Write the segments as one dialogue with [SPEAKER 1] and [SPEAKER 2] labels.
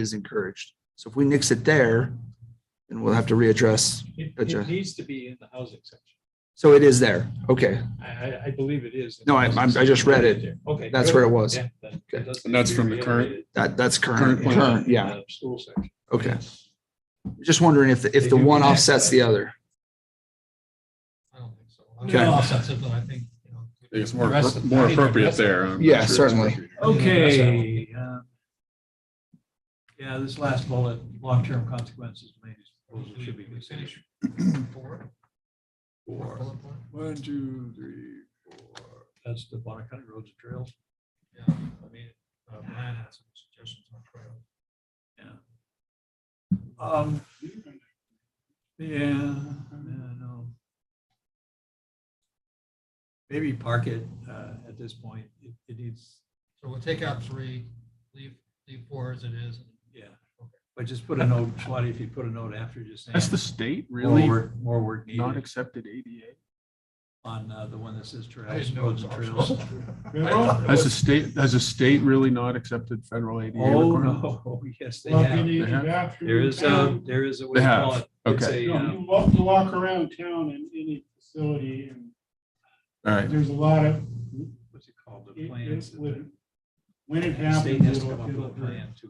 [SPEAKER 1] is encouraged. So if we nix it there, then we'll have to readdress.
[SPEAKER 2] It,
[SPEAKER 1] Gotcha.
[SPEAKER 2] it needs to be in the housing section.
[SPEAKER 1] So it is there. Okay,
[SPEAKER 2] I, I, I believe it is. in
[SPEAKER 1] No,
[SPEAKER 2] the
[SPEAKER 1] I-
[SPEAKER 2] housing
[SPEAKER 1] I'm- I just
[SPEAKER 2] section.
[SPEAKER 1] read it.
[SPEAKER 2] Okay.
[SPEAKER 1] that's
[SPEAKER 2] good.
[SPEAKER 1] where it was.
[SPEAKER 2] Yeah, then it doesn't
[SPEAKER 3] And that's
[SPEAKER 2] need to
[SPEAKER 3] from
[SPEAKER 2] be
[SPEAKER 3] the current-
[SPEAKER 2] elevated
[SPEAKER 1] That, that's current,
[SPEAKER 3] Current plan.
[SPEAKER 1] current,
[SPEAKER 2] in
[SPEAKER 1] yeah,
[SPEAKER 2] the School section.
[SPEAKER 1] okay. Just wondering if, the
[SPEAKER 2] They
[SPEAKER 1] if the
[SPEAKER 2] do
[SPEAKER 1] one
[SPEAKER 2] connect,
[SPEAKER 1] offsets
[SPEAKER 2] but-
[SPEAKER 1] the other.
[SPEAKER 2] I don't think so. I mean,
[SPEAKER 1] Okay.
[SPEAKER 2] offsets it, but I think, you know,
[SPEAKER 3] I think it's
[SPEAKER 2] the
[SPEAKER 3] more,
[SPEAKER 2] rest of- I
[SPEAKER 3] more
[SPEAKER 2] think the
[SPEAKER 3] appropriate
[SPEAKER 2] rest of-
[SPEAKER 3] there. I'm not
[SPEAKER 1] Yeah,
[SPEAKER 3] sure it's
[SPEAKER 1] certainly.
[SPEAKER 3] appropriate.
[SPEAKER 2] Okay. uh, Yeah, this last bullet, long-term consequences of Laney's proposal should be considered.
[SPEAKER 3] Four. One, two, three, four.
[SPEAKER 2] That's the Bonner County Roads and Trails. Yeah, I mean, uh, Brian had some suggestions on trails. Yeah. Um, yeah, yeah, no. Maybe park it, uh, at this point, it, it needs,
[SPEAKER 4] So we'll take out three, leave, leave four as it is.
[SPEAKER 2] yeah, but just put a note, Swati, if you put a note after, just saying.
[SPEAKER 5] Has the state
[SPEAKER 2] more
[SPEAKER 5] really
[SPEAKER 2] work- More work
[SPEAKER 5] not
[SPEAKER 2] needed
[SPEAKER 5] accepted ADA?
[SPEAKER 2] on, uh, the one that says trails.
[SPEAKER 4] I didn't know
[SPEAKER 2] roads
[SPEAKER 4] it
[SPEAKER 2] and
[SPEAKER 4] was
[SPEAKER 2] trails.
[SPEAKER 5] Has the state, has the state really not accepted federal ADA
[SPEAKER 2] Oh,
[SPEAKER 5] requirements?
[SPEAKER 2] no, yes, they
[SPEAKER 6] Well, if you
[SPEAKER 2] have,
[SPEAKER 6] need
[SPEAKER 5] They
[SPEAKER 6] a
[SPEAKER 5] have.
[SPEAKER 6] bathroom
[SPEAKER 2] there
[SPEAKER 6] in
[SPEAKER 2] is a,
[SPEAKER 6] town,
[SPEAKER 2] there is a. what
[SPEAKER 5] They
[SPEAKER 2] do you
[SPEAKER 5] have.
[SPEAKER 2] call it? It's
[SPEAKER 5] Okay.
[SPEAKER 2] a,
[SPEAKER 6] you know,
[SPEAKER 2] um,
[SPEAKER 6] You walk, you walk around town in any facility and
[SPEAKER 5] All right,
[SPEAKER 6] there's a lot of,
[SPEAKER 2] what's it called, the
[SPEAKER 6] it-
[SPEAKER 2] plans.
[SPEAKER 6] it
[SPEAKER 2] that
[SPEAKER 6] would-
[SPEAKER 2] the-
[SPEAKER 6] when it
[SPEAKER 2] the State
[SPEAKER 6] happens,
[SPEAKER 2] has to come
[SPEAKER 6] it'll,
[SPEAKER 2] up with a
[SPEAKER 6] it'll
[SPEAKER 2] plan
[SPEAKER 6] hurt.
[SPEAKER 2] to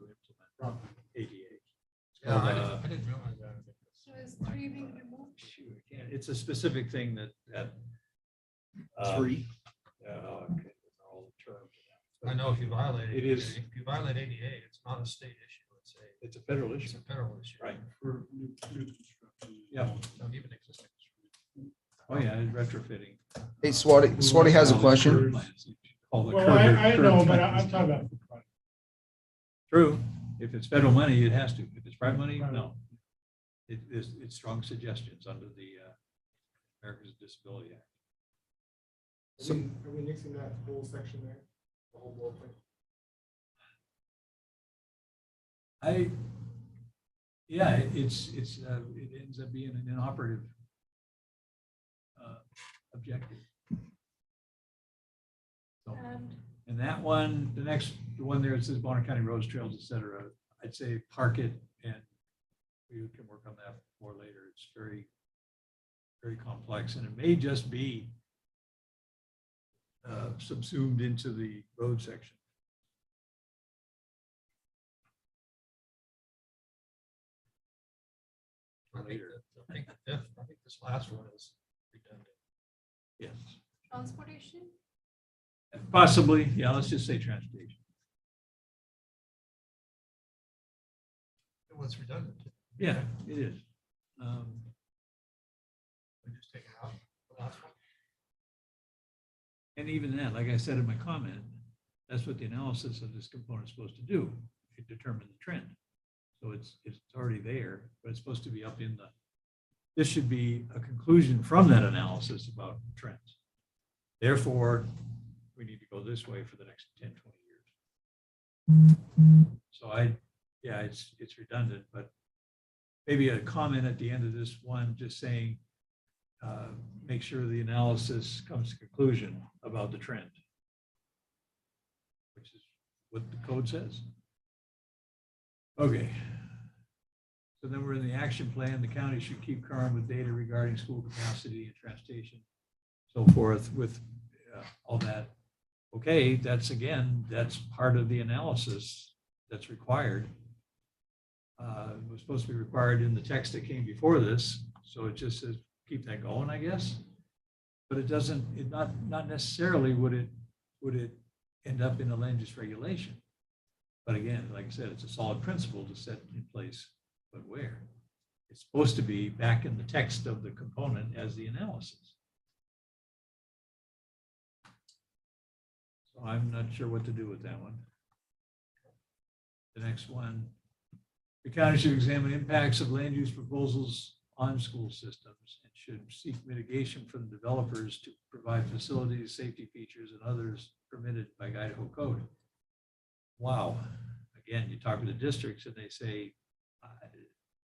[SPEAKER 2] implement ADA. It's
[SPEAKER 4] Yeah, I
[SPEAKER 2] called,
[SPEAKER 4] didn't,
[SPEAKER 2] uh,
[SPEAKER 4] I didn't realize that.
[SPEAKER 7] So is three being removed?
[SPEAKER 2] yeah, It's a specific thing that, that. um, yeah, okay, all the terms.
[SPEAKER 4] I know if you violate.
[SPEAKER 2] It is-
[SPEAKER 4] ADA, If you violate ADA, it's not a state issue, it's a,
[SPEAKER 2] It's a federal
[SPEAKER 4] it's
[SPEAKER 2] issue.
[SPEAKER 4] a federal issue.
[SPEAKER 2] Right.
[SPEAKER 6] for new- new construction.
[SPEAKER 2] Yeah.
[SPEAKER 4] So even existing.
[SPEAKER 2] Oh, yeah, and retrofitting.
[SPEAKER 1] Hey, Swati, Swati has a question.
[SPEAKER 2] All the
[SPEAKER 6] Well,
[SPEAKER 2] curb-
[SPEAKER 6] I, I
[SPEAKER 2] curb
[SPEAKER 6] know, but I-
[SPEAKER 2] tightness.
[SPEAKER 6] I'm talking about. for private.
[SPEAKER 2] True. If it's federal money, it has to. If it's private money, no. It is, it's strong suggestions under the uh, Americans with Disability Act.
[SPEAKER 8] Are we are we nixing that whole section there? The whole bullet
[SPEAKER 2] I, yeah, it- it's, it's, uh, it ends up being an inoperative uh, objective. So,
[SPEAKER 7] And
[SPEAKER 2] And that one, the next, the one there, it says Bonner County roads, trails, et cetera, I'd say park it and we can work on that more later. It's very, very complex and it may just be uh, subsumed into the road section.
[SPEAKER 4] I think that- I think the fifth- I think this last one is redundant.
[SPEAKER 2] Yes,
[SPEAKER 7] transportation?
[SPEAKER 2] possibly, yeah, let's just say transportation.
[SPEAKER 4] It was redundant.
[SPEAKER 2] Yeah, it is. Um,
[SPEAKER 4] We just take it out, the last one.
[SPEAKER 2] And even that, like I said in my comment, that's what the analysis of this component is supposed to do. It determines the trend. So it's, it's already there, but it's supposed to be up in the, this should be a conclusion from that analysis about trends. Therefore, we need to go this way for the next 10, 20 years. So I, yeah, it's, it's redundant, but maybe a comment at the end of this one, just saying, uh, make sure the analysis comes to conclusion about the trend. Which is what the code says. Okay. So then we're in the action plan. The county should keep current with data regarding school capacity and transportation, so forth with uh, all that. Okay, that's again, that's part of the analysis that's required. Uh, It was supposed to be required in the text that came before this, so it just says keep that going, I guess. But it doesn't, it not, not necessarily would it, would it end up in a land use regulation. But again, like I said, it's a solid principle to set in place, but where? It's supposed to be back in the text of the component as the analysis. So I'm not sure what to do with that one. The next one, the county should examine impacts of land use proposals on school systems and should seek mitigation from developers to provide facilities, safety features, and others permitted by Idaho code. Wow, again, you talk to the districts and they say, I-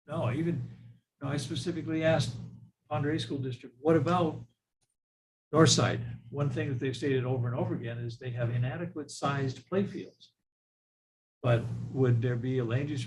[SPEAKER 2] no, even, no, I specifically asked Andre School District, what about Northside? One thing that they've stated over and over again is they have inadequate sized playfields. But would there be a land use